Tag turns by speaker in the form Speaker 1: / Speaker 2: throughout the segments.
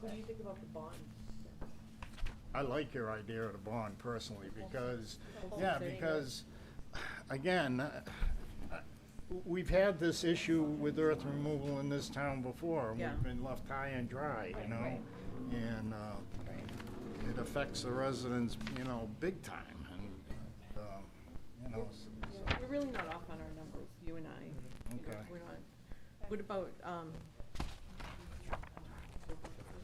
Speaker 1: What do you think about the bond?
Speaker 2: I like your idea of the bond personally because,
Speaker 1: The whole
Speaker 2: yeah,
Speaker 1: thing.
Speaker 2: because, again, uh, uh, we've had this issue with earth removal in this town before. and
Speaker 1: Yeah.
Speaker 2: We've been left high and dry, you know?
Speaker 1: right.
Speaker 2: And uh, it affects the residents, you know, big time. And, um, you know, s-
Speaker 1: Yeah, We're really not off on our numbers, you and I. You know,
Speaker 2: Okay.
Speaker 1: We're not. What about, um,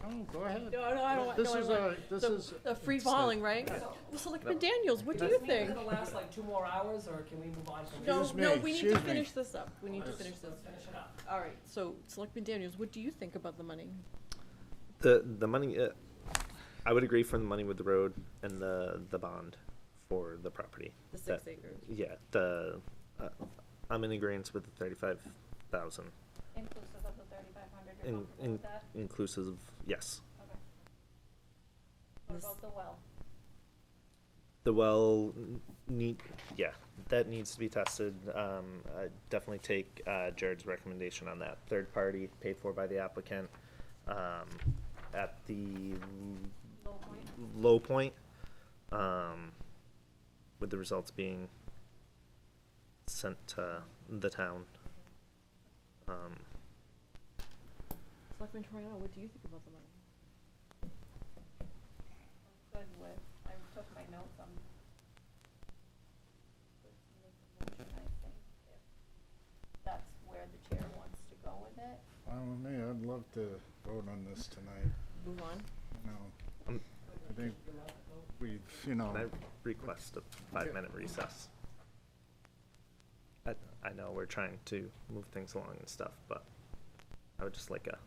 Speaker 2: oh, go ahead.
Speaker 1: no, no, I don't want, no,
Speaker 2: This
Speaker 1: I
Speaker 2: is
Speaker 1: want-
Speaker 2: a- this
Speaker 1: the-
Speaker 2: is a-
Speaker 1: The free
Speaker 2: it's a-
Speaker 1: falling, right? Selectman Daniels, what do you
Speaker 3: This meeting's
Speaker 1: think?
Speaker 3: gonna last like two more hours, or can we move on from
Speaker 1: No,
Speaker 3: this?
Speaker 2: Excuse
Speaker 1: no,
Speaker 2: me,
Speaker 1: we need to
Speaker 2: excuse me.
Speaker 1: finish this up. We need to
Speaker 2: Let's-
Speaker 1: finish this.
Speaker 3: Finish it up.
Speaker 1: All right, so Selectman Daniels, what do you think about the money?
Speaker 4: The the money, uh, I would agree for the money with the road and the the bond for the property.
Speaker 1: The
Speaker 4: That-
Speaker 1: six acres?
Speaker 4: Yeah, the uh, I'm in agreement with the thirty five thousand,
Speaker 5: Inclusive of the thirty-five hundred, you're
Speaker 4: in,
Speaker 5: comfortable
Speaker 4: in
Speaker 5: with that?
Speaker 4: inclusive. Yes,
Speaker 5: Okay. What
Speaker 1: This-
Speaker 5: about the well?
Speaker 4: the well n- need. Yeah, that needs to be tested. Um, I definitely take uh, Jared's recommendation on that. Third party paid for by the applicant. Um, at the
Speaker 5: Low point?
Speaker 4: low point, um, with the results being sent to the town. Um,
Speaker 1: Selectman Toriano, what do you think about the money?
Speaker 5: I'm good with, I took my notes, I'm. good with the motion, I think, if That's where the chair wants to go with it.
Speaker 2: I don't know, I'd love to vote on this tonight,
Speaker 1: Move on.
Speaker 2: you know?
Speaker 4: Um,
Speaker 2: I think we've, you know.
Speaker 4: can I request a five-minute recess? I, I know we're trying to move things along and stuff, but I would just like a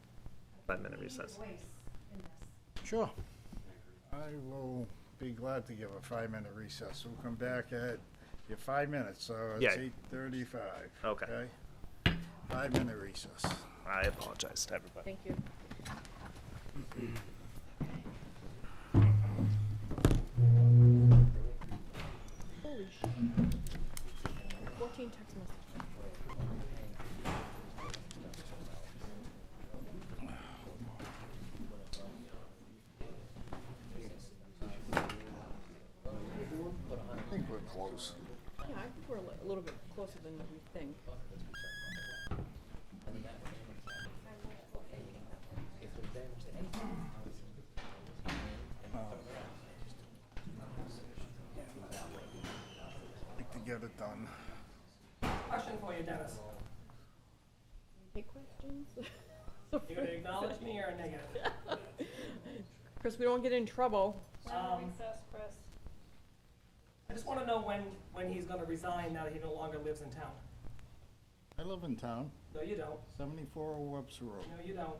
Speaker 4: five-minute recess.
Speaker 2: Sure. I will be glad to give a five-minute recess. We'll come back at your five minutes, so it's
Speaker 4: Yeah.
Speaker 2: eight thirty-five.
Speaker 4: Okay.
Speaker 2: Five-minute recess.
Speaker 4: I apologize to everybody.
Speaker 1: Thank you. Holy shit. Fourteen text messages.
Speaker 2: I think we're close.
Speaker 1: Yeah, I think we're a li- a little bit closer than we think.
Speaker 2: Like to get it done.
Speaker 3: Question for you, Dennis.
Speaker 1: Any questions?
Speaker 3: You gonna acknowledge me or a negative?
Speaker 1: Chris, we don't get in trouble.
Speaker 5: When will
Speaker 3: Um,
Speaker 5: recess, Chris?
Speaker 3: I just wanna know when, when he's gonna resign now that he no longer lives in town.
Speaker 2: I live in town,
Speaker 3: No, you don't.
Speaker 2: seventy-four oh Webster Road.
Speaker 3: No, you don't,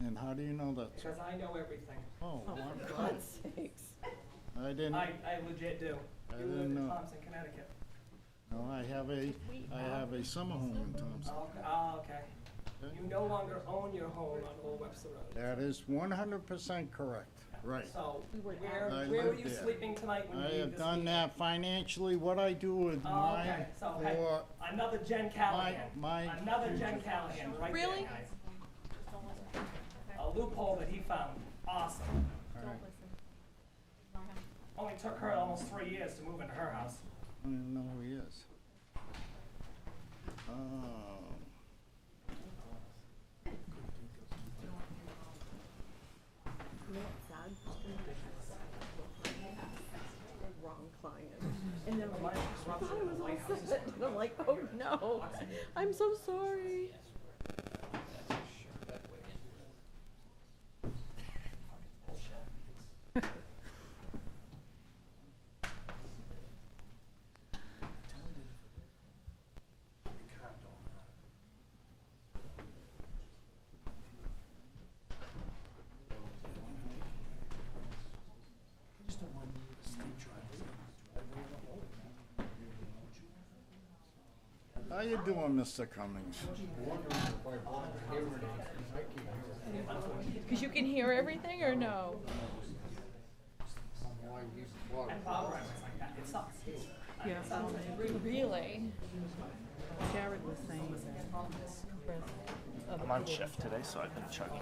Speaker 2: And how do you know that? sir?
Speaker 3: because I know everything.
Speaker 2: Oh,
Speaker 1: Oh,
Speaker 2: I'm
Speaker 1: for
Speaker 2: glad.
Speaker 1: God's sakes.
Speaker 2: I didn't,
Speaker 3: I, I legit do.
Speaker 2: I
Speaker 3: You lived
Speaker 2: didn't
Speaker 3: in
Speaker 2: know.
Speaker 3: Thompson, Connecticut.
Speaker 2: no, I have a, I have a summer home in Thompson.
Speaker 3: Oh, okay. Ah, okay.
Speaker 2: Okay.
Speaker 3: You no longer own your home on Old Webster Road.
Speaker 2: That is one hundred percent correct. Right.
Speaker 3: So,
Speaker 1: We were
Speaker 3: where,
Speaker 2: I
Speaker 3: where were
Speaker 2: lived
Speaker 3: you
Speaker 2: there.
Speaker 3: sleeping tonight when you
Speaker 2: I
Speaker 3: leave
Speaker 2: have
Speaker 3: this
Speaker 2: done
Speaker 3: meeting?
Speaker 2: that financially. What I do with
Speaker 3: Oh,
Speaker 2: mine
Speaker 3: okay, so, hey,
Speaker 2: for
Speaker 3: another Jen Callahan.
Speaker 2: my-
Speaker 3: Another Jen Callahan, right there,
Speaker 1: Really?
Speaker 3: guys.
Speaker 5: Just don't listen,
Speaker 3: A loophole that he found, awesome.
Speaker 2: All right.
Speaker 5: don't listen. Ignore him.
Speaker 3: Only took her almost three years to move into her house.
Speaker 2: I don't even know who he is. Oh.
Speaker 1: You know what's sad? It's gonna be the Wrong client. And then I'm like, I thought it was all set. And I'm like, oh no, I'm so sorry.
Speaker 2: How you doing, Mr. Cummings?
Speaker 1: Cause you can hear everything or no?
Speaker 3: And Bob Ryan was like, that, it sucks.
Speaker 1: Yeah. Really? Jared was saying that. Chris,
Speaker 4: I'm on shift today, so I've been chugging.